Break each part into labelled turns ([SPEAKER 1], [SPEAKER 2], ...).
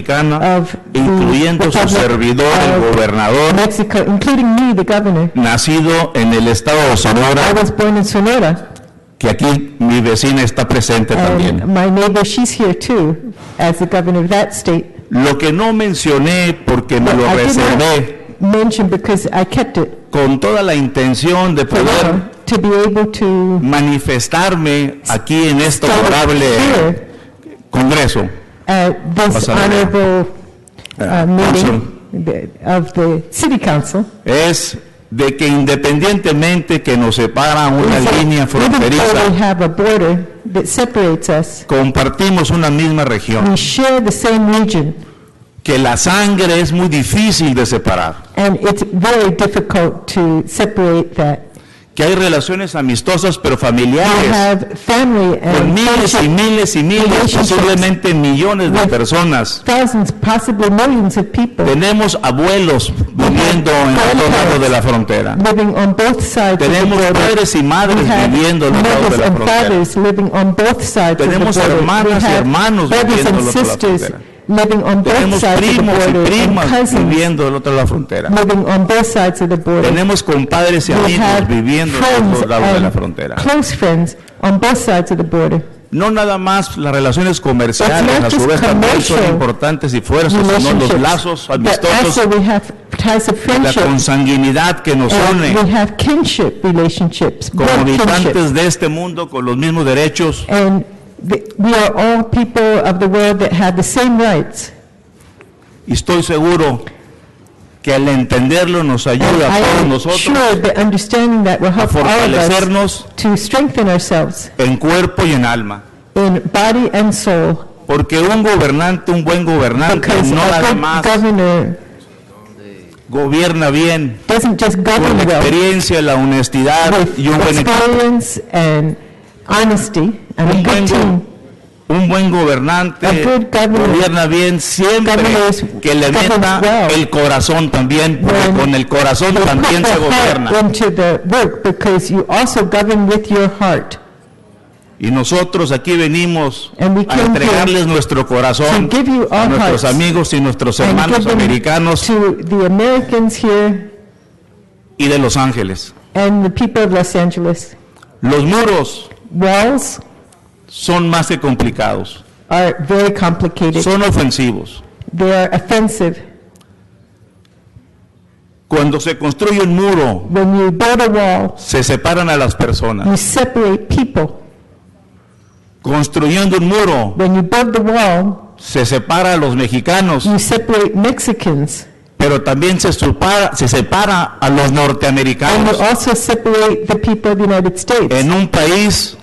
[SPEAKER 1] Mexicana,
[SPEAKER 2] of the
[SPEAKER 1] incluyendo su
[SPEAKER 2] Republic
[SPEAKER 1] servidor, el
[SPEAKER 2] of
[SPEAKER 1] gobernador,
[SPEAKER 2] Mexico, including me, the governor.
[SPEAKER 1] nacido en el estado de
[SPEAKER 2] I
[SPEAKER 1] Sonora,
[SPEAKER 2] was born in Sonora,
[SPEAKER 1] que aquí mi vecina está presente
[SPEAKER 2] Um,
[SPEAKER 1] también.
[SPEAKER 2] and my neighbor, she's here too, as the governor of that state.
[SPEAKER 1] Lo que no mencioné porque me lo
[SPEAKER 2] I did not
[SPEAKER 1] reservé
[SPEAKER 2] Mention because I kept it
[SPEAKER 1] con toda la intención de
[SPEAKER 2] for
[SPEAKER 1] poder
[SPEAKER 2] to be able to
[SPEAKER 1] manifestarme aquí en este
[SPEAKER 2] start
[SPEAKER 1] honorable
[SPEAKER 2] here
[SPEAKER 1] Congreso.
[SPEAKER 2] at
[SPEAKER 1] Vas
[SPEAKER 2] uh, this
[SPEAKER 1] a ver.
[SPEAKER 2] honorable
[SPEAKER 1] Ah,
[SPEAKER 2] uh, meeting the- of the city council.
[SPEAKER 1] Es de que independientemente que nos separa una línea
[SPEAKER 2] Even though we
[SPEAKER 1] fronteriza,
[SPEAKER 2] have a border that separates us,
[SPEAKER 1] compartimos una misma región,
[SPEAKER 2] we share the same region,
[SPEAKER 1] que la sangre es muy difícil de separar,
[SPEAKER 2] and it's very difficult to separate that.
[SPEAKER 1] que hay relaciones amistosas pero
[SPEAKER 2] We
[SPEAKER 1] familiares
[SPEAKER 2] have family
[SPEAKER 1] con
[SPEAKER 2] and
[SPEAKER 1] miles y
[SPEAKER 2] friendship-
[SPEAKER 1] miles y miles,
[SPEAKER 2] relationships.
[SPEAKER 1] posiblemente millones de personas.
[SPEAKER 2] thousands, possibly millions of people
[SPEAKER 1] Tenemos abuelos viviendo en los dos lados de la frontera.
[SPEAKER 2] living on both sides of the
[SPEAKER 1] Tenemos
[SPEAKER 2] border.
[SPEAKER 1] padres y
[SPEAKER 2] We
[SPEAKER 1] madres
[SPEAKER 2] have
[SPEAKER 1] viviendo en los lados de
[SPEAKER 2] mothers
[SPEAKER 1] la
[SPEAKER 2] and
[SPEAKER 1] frontera.
[SPEAKER 2] fathers living on both sides of the
[SPEAKER 1] Tenemos
[SPEAKER 2] border.
[SPEAKER 1] hermanas y
[SPEAKER 2] We have
[SPEAKER 1] hermanos
[SPEAKER 2] brothers
[SPEAKER 1] viviendo
[SPEAKER 2] and
[SPEAKER 1] al otro lado de la
[SPEAKER 2] sisters living on both
[SPEAKER 1] Tenemos
[SPEAKER 2] sides of the
[SPEAKER 1] primos y
[SPEAKER 2] border and
[SPEAKER 1] primas
[SPEAKER 2] cousins
[SPEAKER 1] viviendo del otro lado de la frontera.
[SPEAKER 2] living on both sides of the border.
[SPEAKER 1] Tenemos compadres y
[SPEAKER 2] We
[SPEAKER 1] amigos
[SPEAKER 2] have
[SPEAKER 1] viviendo en
[SPEAKER 2] friends
[SPEAKER 1] los lados de la
[SPEAKER 2] and
[SPEAKER 1] frontera.
[SPEAKER 2] Close friends on both sides of the border.
[SPEAKER 1] No nada más las relaciones comerciales,
[SPEAKER 2] It's not
[SPEAKER 1] a su
[SPEAKER 2] just
[SPEAKER 1] vez también son
[SPEAKER 2] commercial
[SPEAKER 1] importantes y fuertes, sino
[SPEAKER 2] Relationships.
[SPEAKER 1] los lazos
[SPEAKER 2] But also
[SPEAKER 1] amistosos,
[SPEAKER 2] we have ties of
[SPEAKER 1] la
[SPEAKER 2] friendship.
[SPEAKER 1] consanguinidad que nos
[SPEAKER 2] and
[SPEAKER 1] une
[SPEAKER 2] We have kinship relationships,
[SPEAKER 1] como
[SPEAKER 2] blood kinship.
[SPEAKER 1] habitantes de este mundo con los mismos derechos,
[SPEAKER 2] And the- we are all people of the world that have the same rights.
[SPEAKER 1] y estoy seguro que al entenderlo nos ayuda a todos
[SPEAKER 2] I am
[SPEAKER 1] nosotros
[SPEAKER 2] sure that understanding that will
[SPEAKER 1] a
[SPEAKER 2] help all of us
[SPEAKER 1] fortalecernos
[SPEAKER 2] to strengthen ourselves
[SPEAKER 1] en cuerpo y en alma.
[SPEAKER 2] in body and soul.
[SPEAKER 1] Porque un gobernante, un buen gobernante,
[SPEAKER 2] Because
[SPEAKER 1] no
[SPEAKER 2] a
[SPEAKER 1] nada
[SPEAKER 2] good
[SPEAKER 1] más
[SPEAKER 2] governor
[SPEAKER 1] gobierna bien,
[SPEAKER 2] doesn't just
[SPEAKER 1] con la
[SPEAKER 2] govern well
[SPEAKER 1] experiencia, la honestidad
[SPEAKER 2] with
[SPEAKER 1] y un buen equipo.
[SPEAKER 2] experience and honesty
[SPEAKER 1] Un
[SPEAKER 2] and
[SPEAKER 1] buen
[SPEAKER 2] a good team.
[SPEAKER 1] Un buen gobernante
[SPEAKER 2] A good governor.
[SPEAKER 1] gobierna bien siempre
[SPEAKER 2] Governors
[SPEAKER 1] que le
[SPEAKER 2] governs
[SPEAKER 1] meta
[SPEAKER 2] well.
[SPEAKER 1] el corazón también, porque
[SPEAKER 2] When
[SPEAKER 1] con el corazón
[SPEAKER 2] You put
[SPEAKER 1] también se
[SPEAKER 2] the heart
[SPEAKER 1] gobierna.
[SPEAKER 2] into the work because you also govern with your heart.
[SPEAKER 1] Y nosotros aquí venimos
[SPEAKER 2] And we
[SPEAKER 1] a
[SPEAKER 2] came
[SPEAKER 1] entregarles nuestro corazón
[SPEAKER 2] to give you
[SPEAKER 1] a
[SPEAKER 2] our
[SPEAKER 1] nuestros
[SPEAKER 2] hearts
[SPEAKER 1] amigos y nuestros
[SPEAKER 2] and give
[SPEAKER 1] hermanos
[SPEAKER 2] them
[SPEAKER 1] americanos
[SPEAKER 2] To the Americans here
[SPEAKER 1] y de Los Ángeles.
[SPEAKER 2] and the people of Los Angeles,
[SPEAKER 1] Los muros
[SPEAKER 2] walls
[SPEAKER 1] son más que complicados,
[SPEAKER 2] are very complicated.
[SPEAKER 1] son ofensivos.
[SPEAKER 2] They are offensive.
[SPEAKER 1] Cuando se construye un muro,
[SPEAKER 2] When you build a wall,
[SPEAKER 1] se separan a las personas.
[SPEAKER 2] you separate people.
[SPEAKER 1] Construyendo un muro,
[SPEAKER 2] When you build the wall,
[SPEAKER 1] se separa a los mexicanos.
[SPEAKER 2] you separate Mexicans.
[SPEAKER 1] pero también se separa, se separa a los
[SPEAKER 2] And
[SPEAKER 1] norteamericanos
[SPEAKER 2] you also separate the people of the United States.
[SPEAKER 1] en un país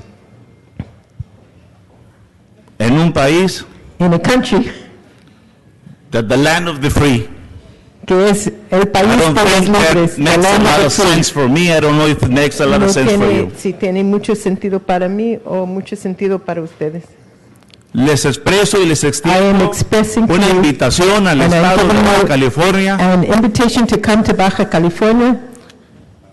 [SPEAKER 1] en un país
[SPEAKER 2] in a country
[SPEAKER 1] that the land of the free
[SPEAKER 2] que es el
[SPEAKER 1] I
[SPEAKER 2] país
[SPEAKER 1] don't
[SPEAKER 2] de los
[SPEAKER 1] think
[SPEAKER 2] libres,
[SPEAKER 1] that
[SPEAKER 2] la
[SPEAKER 1] makes a
[SPEAKER 2] lana
[SPEAKER 1] lot
[SPEAKER 2] del
[SPEAKER 1] of
[SPEAKER 2] sur.
[SPEAKER 1] sense for me I don't know if it makes a lot
[SPEAKER 2] No
[SPEAKER 1] of sense for you
[SPEAKER 2] tiene, si tiene mucho sentido para mí o mucho sentido para ustedes.
[SPEAKER 1] les expreso y les
[SPEAKER 2] I am
[SPEAKER 1] extiendo
[SPEAKER 2] expressing to
[SPEAKER 1] una
[SPEAKER 2] you
[SPEAKER 1] invitación al
[SPEAKER 2] and I
[SPEAKER 1] estado de
[SPEAKER 2] don't
[SPEAKER 1] Baja
[SPEAKER 2] know-
[SPEAKER 1] California
[SPEAKER 2] an invitation to come to Baja California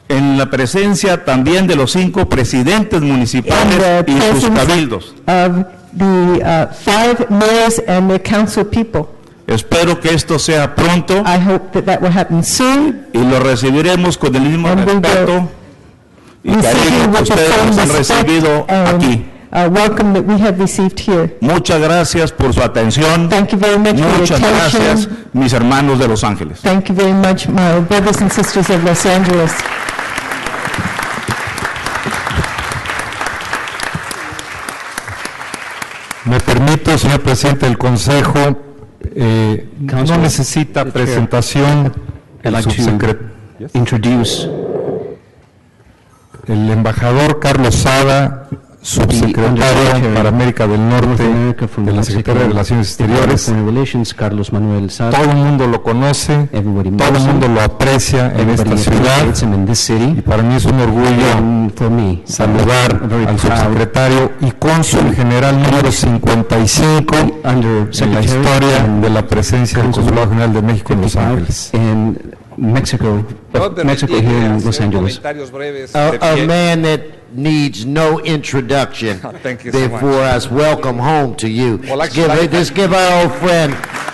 [SPEAKER 1] en la presencia también de los cinco presidentes municipales
[SPEAKER 2] And uh, the
[SPEAKER 1] y sus
[SPEAKER 2] presence-
[SPEAKER 1] cabildos
[SPEAKER 2] of the uh, five mayors and their council people.
[SPEAKER 1] espero que esto sea pronto
[SPEAKER 2] I hope that that will happen soon.
[SPEAKER 1] y lo recibiremos con el mismo
[SPEAKER 2] And we will
[SPEAKER 1] respeto y
[SPEAKER 2] We seek you
[SPEAKER 1] cariño que
[SPEAKER 2] with the
[SPEAKER 1] ustedes
[SPEAKER 2] same
[SPEAKER 1] nos han
[SPEAKER 2] respect
[SPEAKER 1] recibido
[SPEAKER 2] and,
[SPEAKER 1] aquí.
[SPEAKER 2] uh, welcome that we have received here.
[SPEAKER 1] Muchas gracias por su atención.
[SPEAKER 2] Thank you very much for your
[SPEAKER 1] Muchas gracias,
[SPEAKER 2] attention.
[SPEAKER 1] mis hermanos de Los Ángeles.
[SPEAKER 2] Thank you very much, my brothers and sisters of Los Angeles.
[SPEAKER 3] Me permito, señor presidente del Consejo, eh, no
[SPEAKER 4] Councilor,
[SPEAKER 3] necesita
[SPEAKER 4] Chair.
[SPEAKER 3] presentación
[SPEAKER 4] I'd
[SPEAKER 3] el,
[SPEAKER 4] like to-
[SPEAKER 3] subsecre-
[SPEAKER 4] introduce
[SPEAKER 3] el embajador Carlos Sada, subsecretario
[SPEAKER 4] Undersecretary
[SPEAKER 3] para América del Norte
[SPEAKER 4] America from
[SPEAKER 3] de la
[SPEAKER 4] Mexico,
[SPEAKER 3] Secretaría de Relaciones Exteriores.
[SPEAKER 4] Foreign Relations, Carlos Manuel Sada.
[SPEAKER 3] Todo el mundo lo conoce,
[SPEAKER 4] Everybody
[SPEAKER 3] todo
[SPEAKER 4] knows
[SPEAKER 3] el
[SPEAKER 4] him.
[SPEAKER 3] mundo lo aprecia en
[SPEAKER 4] Everybody
[SPEAKER 3] esta ciudad
[SPEAKER 4] appreciates him in this
[SPEAKER 3] y
[SPEAKER 4] city.
[SPEAKER 3] para mí es un orgullo
[SPEAKER 4] And for me,
[SPEAKER 3] saludar
[SPEAKER 4] I'm very
[SPEAKER 3] al
[SPEAKER 4] proud
[SPEAKER 3] subsecretario y cónsul general número 55
[SPEAKER 4] under
[SPEAKER 3] en la
[SPEAKER 4] Secretary
[SPEAKER 3] historia de la presencia del Consulado General de México en Los Ángeles.
[SPEAKER 4] in Mexico,
[SPEAKER 5] Puedo permitirme
[SPEAKER 4] Mexico here in Los
[SPEAKER 5] hacer
[SPEAKER 4] Angeles.
[SPEAKER 5] Comentarios breves. de
[SPEAKER 6] A,
[SPEAKER 5] pie.
[SPEAKER 6] a man that needs no introduction.
[SPEAKER 5] Thank you so much.
[SPEAKER 6] Therefore, us welcome home to you.
[SPEAKER 5] Well, actually,
[SPEAKER 6] Give
[SPEAKER 5] I-
[SPEAKER 6] it- Just give our old friend